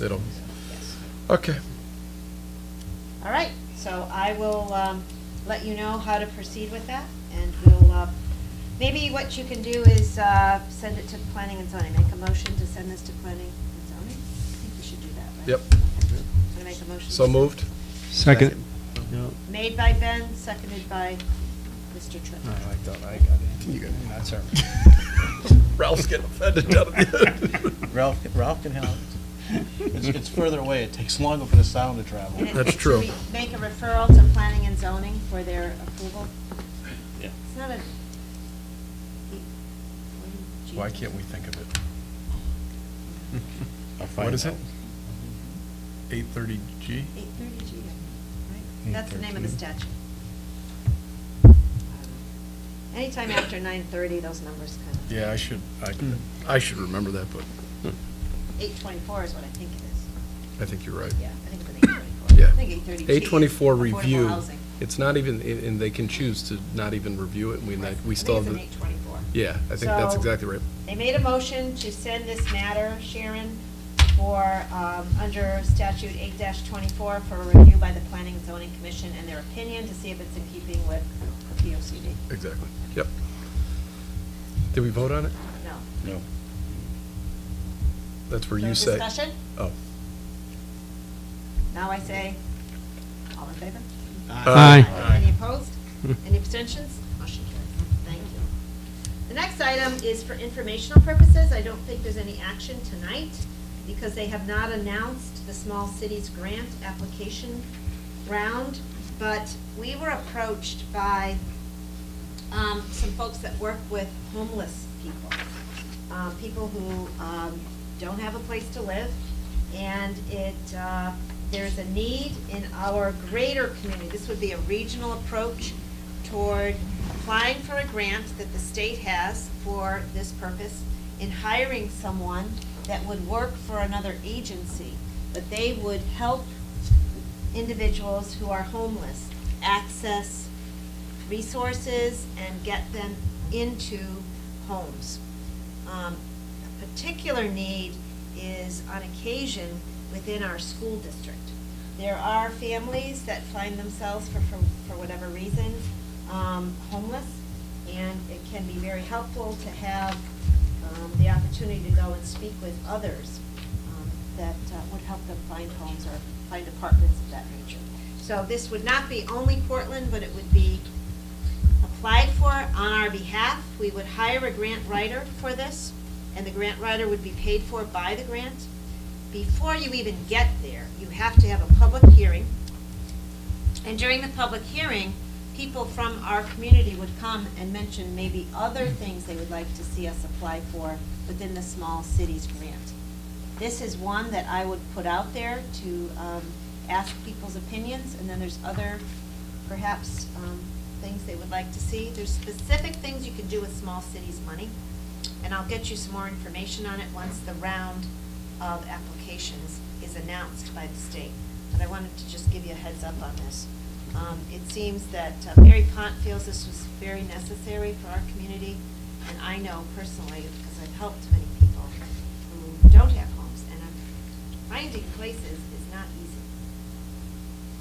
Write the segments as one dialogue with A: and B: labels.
A: it'll, okay.
B: All right, so I will um, let you know how to proceed with that, and we'll, uh, maybe what you can do is uh, send it to planning and zoning, make a motion to send this to planning and zoning. I think we should do that, right?
A: Yep.
B: Okay. I'm gonna make a motion.
A: So moved?
C: Second.
B: Made by Ben, seconded by Mr. Tripp.
D: I like that, I got it.
A: You got it.
D: That's her.
A: Ralph's getting offended down at the end.
D: Ralph, Ralph can help. It's, it's further away, it takes longer for the sound to
B: And
D: travel.
B: it-
A: That's true.
B: should we Make a referral to planning and zoning for their approval.
D: Yeah.
B: It's not a. what do you-
A: Why can't we think of it?
D: I'll find
A: What is it?
D: out.
A: Eight thirty G?
B: 830G, right? That's the name of the
D: 8:13.
B: statute. Anytime after 9:30, those numbers kind of,
A: Yeah, I should, I, Hmm. I should remember that, but
B: 8:24 is what I think it is.
A: I think you're right.
B: Yeah, I think it's an 8:24.
A: Yeah.
B: I think 8:30G.
A: Eight twenty-four
B: is Affordable
A: review,
B: housing.
A: it's not even, and and they can choose to not even review it, and we, not- we still have,
B: I
A: the
B: think it's an 8:24.
A: yeah, I think that's
B: So-
A: exactly right.
B: They made a motion to send this matter, Sharon, for, um, under statute eight twenty-four for review by the Planning and Zoning Commission and their opinion to see if it's in keeping with the P O C D.
A: Exactly, yep. Did we vote on it?
B: No.
D: No.
A: That's where
B: So
A: you say.
B: Discussion?
A: Oh.
B: Now I say, all in favor?
C: Aye.
B: Any opposed? Any abstentions? Motion carries. Thank you. The next item is for informational purposes. I don't think there's any action tonight because they have not announced the small cities grant application round. But we were approached by um, some folks that work with homeless people, uh, people who um, don't have a place to live. And it, uh, there's a need in our greater community, this would be a regional approach toward applying for a grant that the state has for this purpose in hiring someone that would work for another agency, but they would help individuals who are homeless access resources and get them into homes. Um, A particular need is on occasion within our school district. There are families that find themselves for, for for whatever reason, um, homeless, and it can be very helpful to have um, the opportunity to go and speak with others um, that uh, would help them find homes or find apartments of that nature. So this would not be only Portland, but it would be applied for on our behalf. We would hire a grant writer for this, and the grant writer would be paid for by the grant. Before you even get there, you have to have a public hearing. And during the public hearing, people from our community would come and mention maybe other things they would like to see us apply for within the small cities grant. This is one that I would put out there to um, ask people's opinions, and then there's other perhaps um, things they would like to see. There's specific things you can do with small cities money, and I'll get you some more information on it once the round of applications is announced by the state. But I wanted to just give you a heads up on this. Um, It seems that uh, Mary Pont feels this was very necessary for our community, and I know personally, because I've helped many people who don't have homes, and I'm finding places is not easy.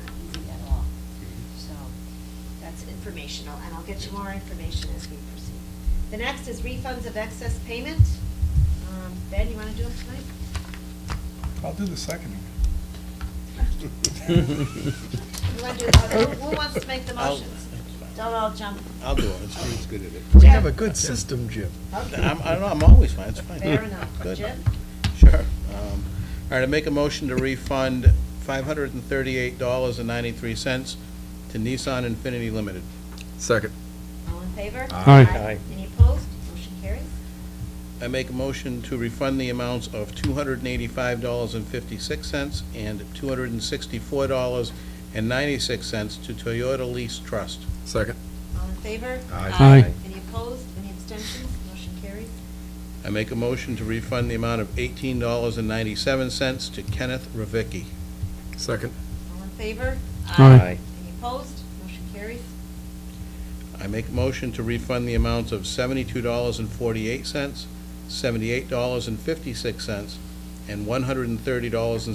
B: Not easy at all. So that's informational, and I'll get you more information as we proceed. The next is refunds of excess payment. Um, Ben, you want to do them tonight?
E: I'll do the seconding.
B: You wanna do the- Who who wants to make the motions? Don't all jump.
D: I'll do it, it's good at it.
A: We have a good system, Jim.
B: Okay,
D: I'm, I don't know, I'm always fine, it's fine.
B: fair enough.
D: Good.
B: Jim?
D: Sure. Um, All right, I make a motion to refund five hundred and thirty-eight dollars and ninety-three cents to Nissan Infinity Limited.
A: Second.
B: All in favor?
C: Aye.
B: Any opposed? Motion carries.
D: I make a motion to refund the amounts of two hundred and eighty-five dollars and fifty-six cents and two hundred and sixty-four dollars and ninety-six cents to Toyota Lease Trust.
A: Second.
B: All in favor?
A: Aye.
C: Aye.
B: Any opposed? Any abstentions? Motion carries.
D: I make a motion to refund the amount of eighteen dollars and ninety-seven cents to Kenneth Ravicki.
A: Second.
B: All in favor?
C: Aye. Aye.
B: Any opposed? Motion carries.
D: I make a motion to refund the amounts of seventy-two dollars and forty-eight cents, seventy-eight dollars and fifty-six cents, and one hundred and thirty dollars and